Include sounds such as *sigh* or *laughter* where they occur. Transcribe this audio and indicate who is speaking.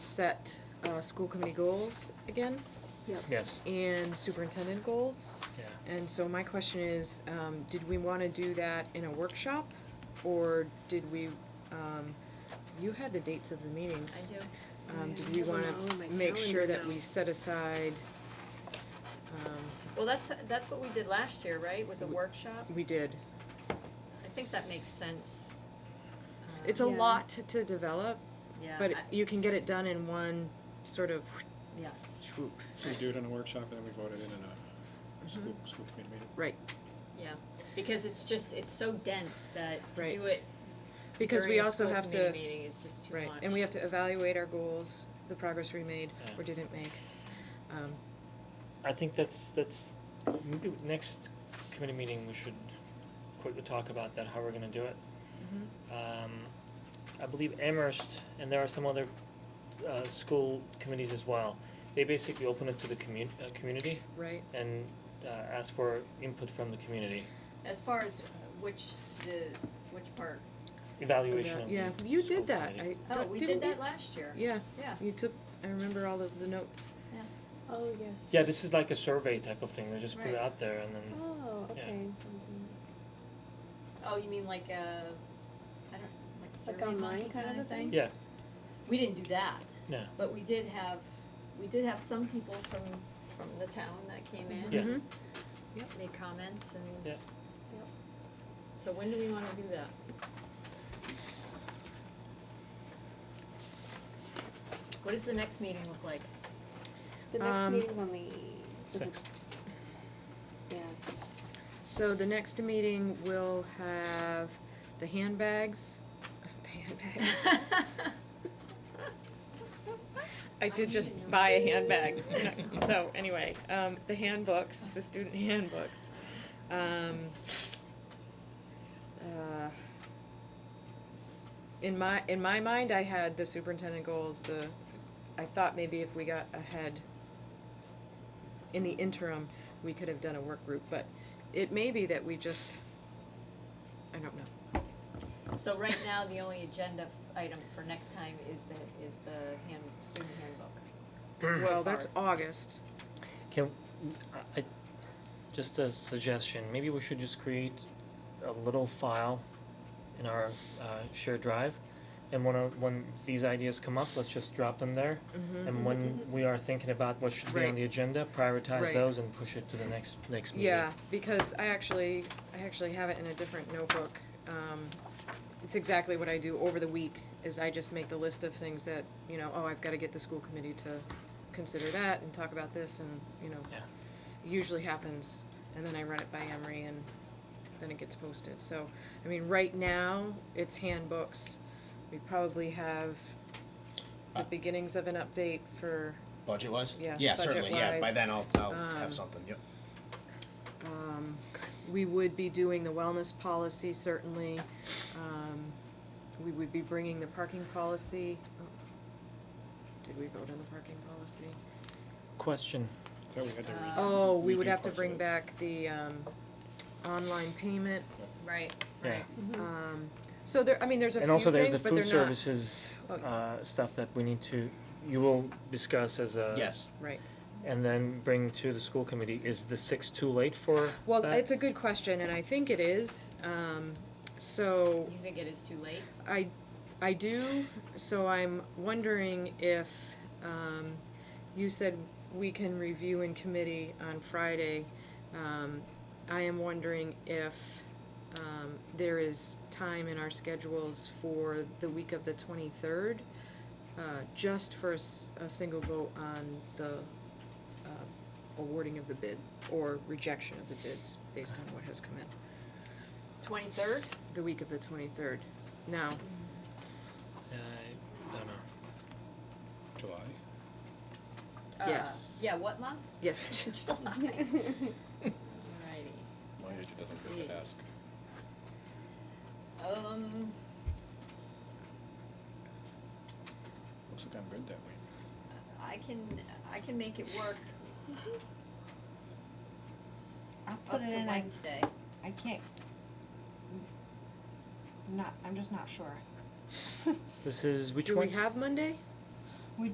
Speaker 1: set uh, school committee goals again
Speaker 2: Yes,
Speaker 1: and superintendent goals.
Speaker 2: yeah.
Speaker 1: And so my question is, um, did we want to do that in a workshop? Or did we, um, you had the dates of the meetings.
Speaker 3: I do.
Speaker 1: Um, did
Speaker 4: I
Speaker 1: we
Speaker 4: have them
Speaker 1: want
Speaker 4: all in Oh, my
Speaker 1: to make sure
Speaker 4: calendar
Speaker 1: that we
Speaker 4: now.
Speaker 1: set aside,
Speaker 3: Well, that's, that's what we did last year, right, was a
Speaker 1: We-
Speaker 3: workshop?
Speaker 1: we did.
Speaker 3: I think that makes sense. Um,
Speaker 1: It's a
Speaker 4: Yeah.
Speaker 1: lot to- to develop,
Speaker 3: Yeah,
Speaker 1: but
Speaker 3: I-
Speaker 1: you can get it done in one sort of
Speaker 3: yeah,
Speaker 1: swoop.
Speaker 2: So we do it in a workshop and then we vote it in in a school, school committee meeting.
Speaker 1: Right,
Speaker 3: yeah, because it's just, it's so dense that to do
Speaker 1: Right.
Speaker 3: it
Speaker 1: because we
Speaker 3: during a
Speaker 1: also
Speaker 3: school
Speaker 1: have to.
Speaker 3: committee meeting is just too much.
Speaker 1: Right, and we have to evaluate our goals, the progress we made
Speaker 2: Yeah.
Speaker 1: or didn't make. Um,
Speaker 5: I think that's, that's, maybe next committee meeting, we should quickly talk about that, how we're gonna do it.
Speaker 4: Mm-hmm.
Speaker 5: Um, I believe Amherst, and there are some other, uh, school committees as well, they basically open it to the commu- uh, community
Speaker 1: Right,
Speaker 5: and, uh, ask for input from the community,
Speaker 3: As far as uh, which, the, which part?
Speaker 5: evaluation of the
Speaker 1: yeah,
Speaker 5: school
Speaker 1: you did that,
Speaker 5: committee.
Speaker 1: I,
Speaker 3: Oh,
Speaker 1: don't-
Speaker 3: we
Speaker 1: didn't
Speaker 3: did that last year.
Speaker 1: Yeah,
Speaker 3: Yeah,
Speaker 1: you took, I remember all of the notes.
Speaker 4: Oh, yes.
Speaker 5: Yeah, this is like a survey type of thing, they just put it
Speaker 3: Right.
Speaker 5: out there and then,
Speaker 4: Oh,
Speaker 5: Yeah.
Speaker 4: okay, something,
Speaker 3: oh, you mean like a, I don't, like survey
Speaker 4: like online
Speaker 3: monkey
Speaker 4: kind of a thing?
Speaker 5: yeah,
Speaker 3: We didn't do that,
Speaker 5: no,
Speaker 3: but we did have, we did have some people from, from the town that came in.
Speaker 5: Yeah. Mm-hmm.
Speaker 1: Mhm.
Speaker 3: made comments and.
Speaker 5: Yeah.
Speaker 4: Yep.
Speaker 3: So when do we wanna do that? What does the next meeting look *laughs* like?
Speaker 4: The next
Speaker 1: Um,
Speaker 4: meeting's on the. is it-
Speaker 5: sixth,
Speaker 4: Yeah,
Speaker 1: So the next meeting will have the handbags, *laughs* the handbags. I did just buy a handbag, *laughs* so anyway, um, the handbooks, the student handbooks. Um, uh, in my, in my mind, I had the superintendent goals, the, I thought maybe if we got ahead in the interim, we could have done a work group, but it may be that we just, I don't know.
Speaker 3: So right now, the only agenda f- item for next time is the, is the hand, student handbook.
Speaker 1: Well, that's August.
Speaker 5: Can, I, I- just a suggestion, maybe we should just create a little file in our, uh, shared drive. And when, uh, when these ideas come up, let's just drop them there.
Speaker 1: Mm-hmm.
Speaker 5: And when we are thinking about what should be
Speaker 1: Right.
Speaker 5: on the agenda,
Speaker 1: Right.
Speaker 5: prioritize those and push it to the next, next meeting.
Speaker 1: Yeah, because I actually, I actually have it in a different notebook. Um, It's exactly what I do over the week, is I just make the list of things that, you know, oh, I've gotta get the school committee to consider that and talk about this and, you know.
Speaker 5: Yeah.
Speaker 1: it Usually happens, and then I run it by Emery and then it gets posted, so, I mean, right now, it's handbooks. We probably have the beginnings of an update for,
Speaker 6: Budget wise?
Speaker 1: Yeah,
Speaker 6: Yeah, certainly, yeah, by
Speaker 1: budget-wise,
Speaker 6: then I'll, I'll
Speaker 1: um,
Speaker 6: have something, yep.
Speaker 1: Um, we would be doing the wellness policy, certainly. Um, we would be bringing the parking policy. oh, Did we vote on the parking policy?
Speaker 5: Question,
Speaker 2: So we had to read.
Speaker 3: Uh,
Speaker 1: Oh, we
Speaker 2: we
Speaker 1: would
Speaker 2: can
Speaker 1: have to
Speaker 2: push
Speaker 1: bring
Speaker 2: it.
Speaker 1: back the, um, online payment.
Speaker 3: Right,
Speaker 5: yeah.
Speaker 3: right.
Speaker 4: *laughs*
Speaker 1: Um, so there, I mean, there's a few
Speaker 5: And also there's
Speaker 1: things,
Speaker 5: the
Speaker 1: but they're
Speaker 5: food
Speaker 1: not,
Speaker 5: services,
Speaker 1: Oh.
Speaker 5: uh, stuff that we need to, you will discuss as
Speaker 2: uh,
Speaker 5: a.
Speaker 6: Yes,
Speaker 1: right.
Speaker 5: And then bring to the school committee. Is the six too late for
Speaker 1: Well,
Speaker 5: that?
Speaker 1: it's a good question, and I think it is. Um,
Speaker 5: Oh.
Speaker 1: so
Speaker 3: You think it is too late?
Speaker 1: I, I do, so I'm wondering if, um, you said we can review in committee on Friday. Um, I am wondering if, um, there is time in our schedules for the week of the twenty-third, uh, just for a, s- a single vote on the, uh, awarding of the bid or rejection of the bids based on what has come in
Speaker 3: Twenty-third?
Speaker 1: the week of the twenty-third. Now,
Speaker 5: Uh, I don't know.
Speaker 2: July.
Speaker 1: Yes.
Speaker 3: Uh, Yeah, what
Speaker 5: *laughs*
Speaker 3: month?
Speaker 1: yes, *laughs*
Speaker 3: Alrighty.
Speaker 2: My age
Speaker 3: Let's
Speaker 2: doesn't forget
Speaker 3: see.
Speaker 2: to ask.
Speaker 3: Um,
Speaker 2: Looks like I'm good that week.
Speaker 3: I can, I can make it work
Speaker 7: *laughs* I'll put
Speaker 3: up
Speaker 7: it
Speaker 3: to
Speaker 7: in, I,
Speaker 3: Wednesday.
Speaker 7: I can't. Not, I'm just not sure.
Speaker 5: This is which
Speaker 1: Do
Speaker 5: one?
Speaker 1: we have Monday?